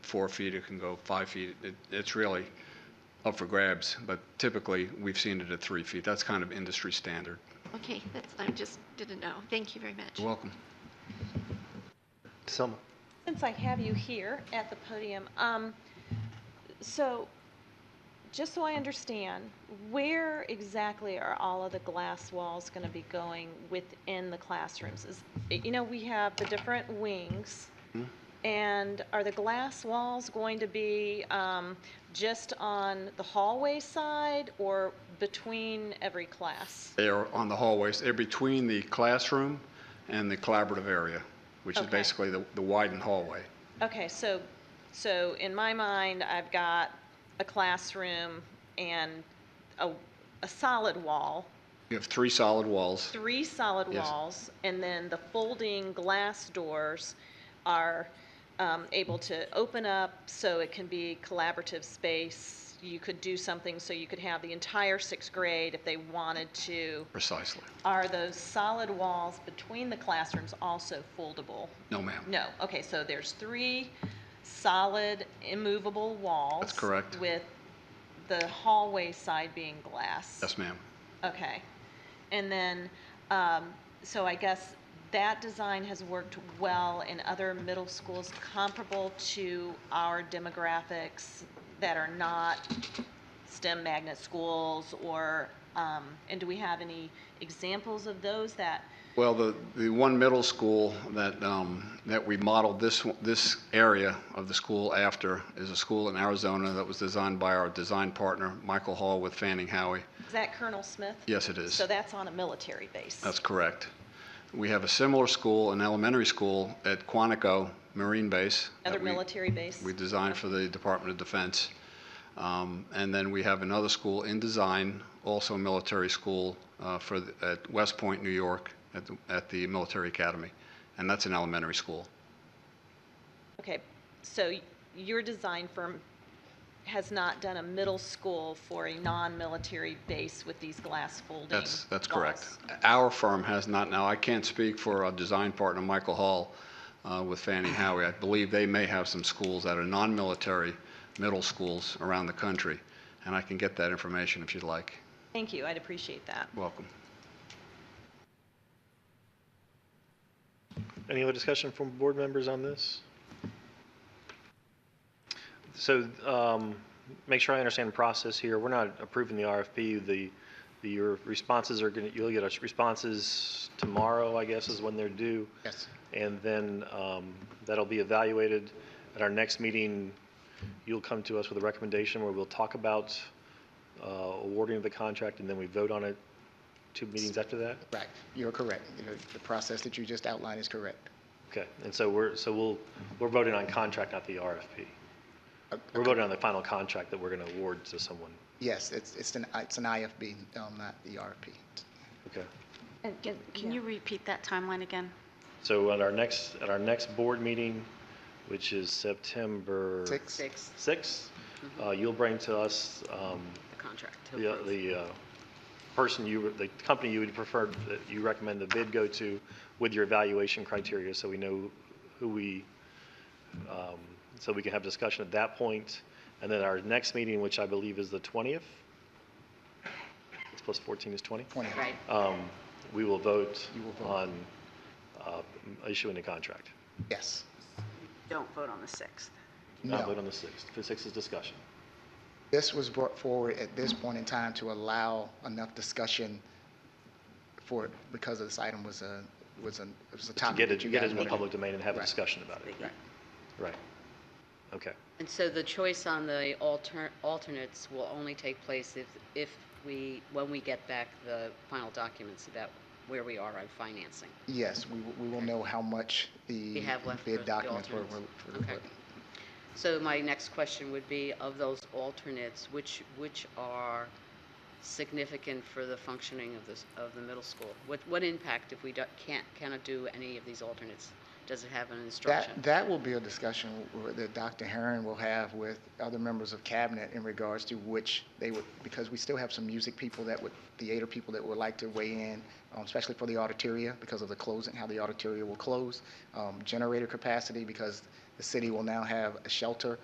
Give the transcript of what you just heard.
four feet, it can go five feet. It- It's really up for grabs, but typically, we've seen it at three feet. That's kind of industry standard. Okay, that's, I just didn't know. Thank you very much. You're welcome. Selma. Since I have you here at the podium, um, so, just so I understand, where exactly are all of the glass walls gonna be going within the classrooms? Is, you know, we have the different wings, Mhm. and are the glass walls going to be, um, just on the hallway side or between every class? They are on the hallways, they're between the classroom and the collaborative area, which is Okay. basically the the widened hallway. Okay, so, so in my mind, I've got a classroom and a, a solid wall, You have three solid walls. three solid Yes. walls, and then the folding glass doors are um, able to open up so it can be collaborative space. You could do something so you could have the entire sixth grade if they wanted to. Precisely. Are those solid walls between the classrooms also foldable? No, ma'am. No, okay, so there's three solid immovable walls. That's correct. With the hallway side being glass. Yes, ma'am. Okay. And then, um, so I guess that design has worked well in other middle schools comparable to our demographics that are not STEM magnet schools or, um, and do we have any examples of those that, Well, the, the one middle school that, um, that we modeled this, one- this area of the school after is a school in Arizona that was designed by our design partner, Michael Hall with Fanning Howie. is that Colonel Smith? Yes, it is. So that's on a military base? That's correct. We have a similar school, an elementary school at Quantico Marine Base. that Another we- military base? We designed for the Department of Defense. Um, And then we have another school in design, also a military school uh, for, the- at West Point, New York, at the- at the Military Academy. And that's an elementary school. Okay, so y- your design firm has not done a middle Mm. school for a non-military base with these glass folding That's, that's correct. walls. Our firm has not, now, I can't speak for our design partner, Michael Hall, uh, with Fannie Howie. I believe they may have some schools that are non-military middle schools around the country, and I can get that information if you'd like. Thank you, I'd appreciate that. Welcome. Any other discussion from board members on this? So, um, make sure I understand the process here. We're not approving the RFP. The, the, your responses are gonna, you'll get us responses tomorrow, I guess, is when they're due. Yes. And then, um, that'll be evaluated. At our next meeting, you'll come to us with a recommendation where we'll talk about, uh, awarding the contract and then we vote on it two meetings after that? Right, you're correct. You know, The process that you just outlined is correct. Okay, and so we're, so we'll, we're voting on contract, not the RFP. Uh, We're voting on the final contract that we're going to award to someone. Yes, it's, it's an, it's an IFB, um, not the RFP. Okay. Can can you repeat that timeline again? So at our next, at our next board meeting, which is September Six? sixth, uh, you'll bring to us, um, the contract. to the, approve. the, uh, person you, the company you would prefer, that you recommend the bid go to with your evaluation criteria, so we know who we, um, so we can have discussion at that point. And then our next meeting, which I believe is the twentieth, six plus fourteen is twenty, Twenty. Right. um, we will vote You will vote. on, uh, issuing a contract. Yes. Don't vote on the 6th. Not vote No. on the sixth. The sixth is discussion. This was brought forward at this point in time to allow enough discussion for, because this item was a, was a, it was To a topic. get it, that you get guys it in the wanted. public domain and have a Right. discussion about it. Right. Right. Okay. And so the choice on the alter, alternates will only take place if, if we, when we get back the final documents about where we are on financing. Yes, we, will- we will know how much the. We have left for Bid the documents were, alternates. were- were- Okay. So my next question would be, of those alternates, which, which are significant for the functioning of this, of the middle school? What, what impact if we do- can't, cannot do any of these alternates? Does it have an instruction? That, that will be a discussion where- that Dr. Herron will have with other members of cabinet in regards to which they would, because we still have some music people that would, theater people that would like to weigh in, um, especially for the auditoria because of the closing, how the auditoria will close, um, generator capacity because the city will now have a shelter